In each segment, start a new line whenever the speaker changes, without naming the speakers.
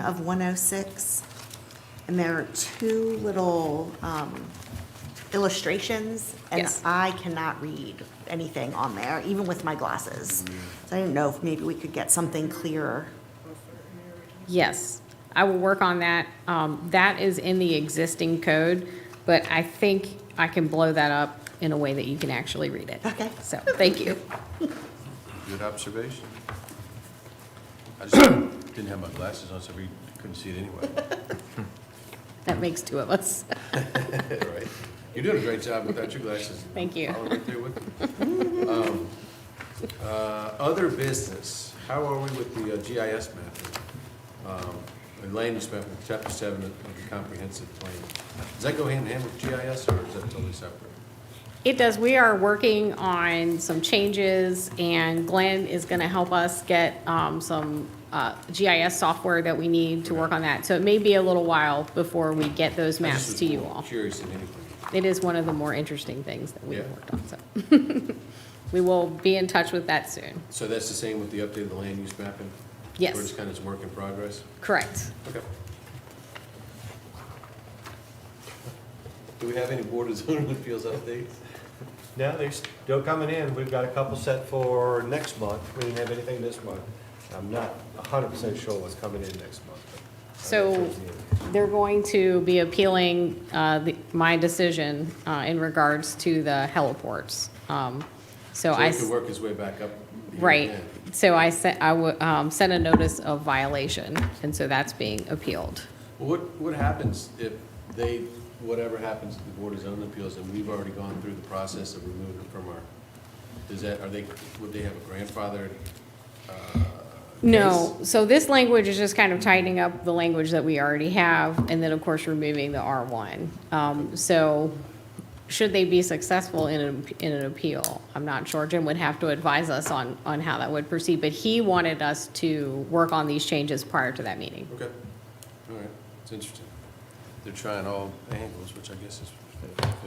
of 106. And there are two little um, illustrations, and
Yes.
I cannot read anything on there, even with my glasses. So I didn't know if maybe we could get something clearer.
Yes, I will work on that. Um, That is in the existing code, but I think I can blow that up in a way that you can actually read it.
Okay.
So, thank you.
Good observation. I just didn't have my glasses on, so we couldn't see it anyway.
That makes two of us.
All right. You're doing a great job without your glasses.
Thank you.
I was right there with you. Um, uh, Other business, how are we with the uh, GIS mapping? Um, And land use mapping, chapter seven of the comprehensive plan. Does that go hand in hand with GIS, or is that totally separate?
It does, we are working on some changes, and Glenn is going to help us get um, some uh, GIS software that we need to work on that. So it may be a little while before we get those
I just
maps
was
to you
more
all.
Curious than anything.
It is one of the more interesting things that we've
Yeah.
worked on, so. We will be in touch with that soon.
So that's the same with the update of the land use mapping?
Yes.
Where it's kind of a work in progress?
Correct.
Okay. Do we have any Board of Zoning Appeals updates?
No, they're still coming in. We've got a couple set for next month. We didn't have anything this month. I'm not hundred percent sure what's coming in next month. but I think
So
towards the end.
they're going to be appealing uh, the- my decision uh, in regards to the heliports. Um, So I,
So he
s-
could work his way back up. here
right,
again.
so I sent, I would, um, sent a notice of violation, and so that's being appealed.
Well, What, what happens if they, whatever happens to the Board of Zoning Appeals, and we've already gone through the process of removing it from our, does that, are they, would they have a grandfathered? uh,
No,
case?
so this language is just kind of tightening up the language that we already have, and then, of course, removing the R1. Um, So should they be successful in an, in an appeal? I'm not sure. Jim would have to advise us on, on how that would proceed, but he wanted us to work on these changes prior to that meeting.
Okay, all right, it's interesting. They're trying all angles, which I guess is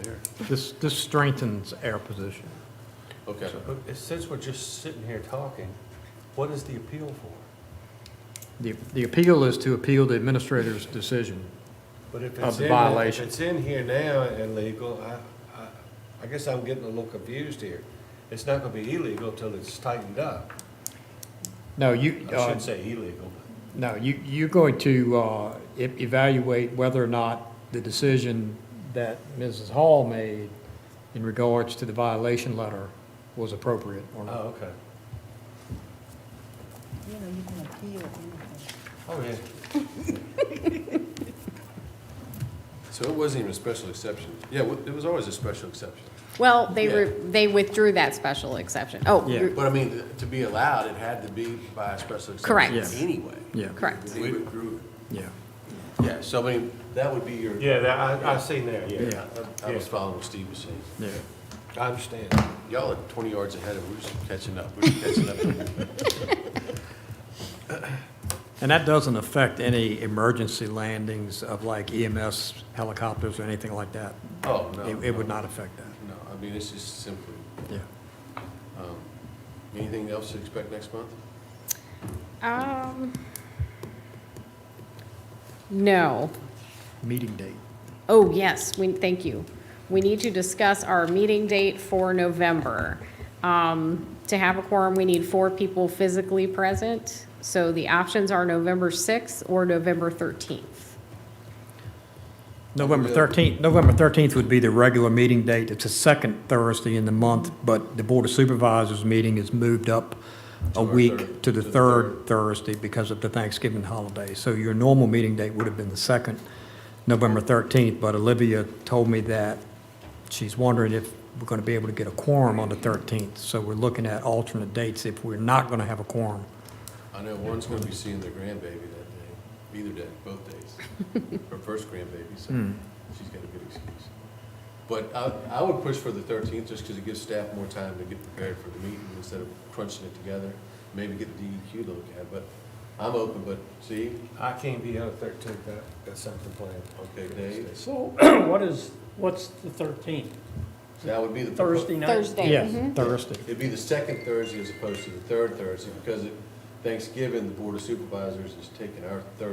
fair.
This, this strengthens our position.
Okay,
But Since we're just sitting here talking, what is the appeal for?
The, the appeal is to appeal the administrator's decision.
But if
Of
it's
the
in, if
violation.
it's in here now and legal, I, I, I guess I'm getting a little confused here. It's not gonna be illegal till it's tightened up.
No, you,
I
uh,
shouldn't say illegal, but
no, you, you're going to uh, e- evaluate whether or not the decision that Mrs. Hall made in regards to the violation letter was appropriate or not.
Oh, okay. You know, you can appeal anything.
so it wasn't even a special exception. Yeah, wa- there was always a special exception.
Well, they, re-
Yeah.
they withdrew that special exception. Oh,
Yeah.
re-
But I mean, to be allowed, it had to be by a special
Correct.
exception
Yeah.
anyway.
Yeah,
correct.
They withdrew
yeah.
it. Yeah, so I mean, that would be your,
Oh, yeah. Yeah, that, I, I seen that, yeah.
I was following what Steve was saying.
Yeah.
I understand.
Y'all are twenty yards ahead of, we're just catching up, we're just catching up.
And that doesn't affect any emergency landings of like EMS helicopters or anything like that.
Oh, no.
It, it would
no,
not affect that,
No, I mean, it's just simply,
yeah.
um, anything else to expect next month?
Um, No.
Meeting date.
Oh, yes, we, thank you. We need to discuss our meeting date for November. Um, To have a quorum, we need four people physically present, so the options are November 6th or November 13th.
November 13th, November 13th would be the regular meeting date. It's the second Thursday in the month, but the Board of Supervisors meeting is moved up
To
a
our
week
third-
to the
to the
third Thursday because of the Thanksgiving holiday. So your normal meeting date would have been the second, November 13th, but Olivia told me that she's wondering if we're going to be able to get a quorum on the 13th. So we're looking at alternate dates if we're not going to have a quorum.
I know one's gonna be seeing their grandbaby that day, either day, both days. Her first grandbaby, so she's got a good excuse. But I, I would push for the thirteenth, just because it gives staff more time to get prepared for the meeting instead of crunching it together. Maybe get the DEQ to look at, it, but I'm open, but see,
I can't be on the thirteenth, that, that's something planned.
okay, Dave,
So what is, what's the 13th?
that would be the. propo-
Thursday night?
Thursday.
Yes, Thursday.
It'd be the second Thursday as opposed to the third Thursday, because it- Thanksgiving, the Board of Supervisors is taking our Thursday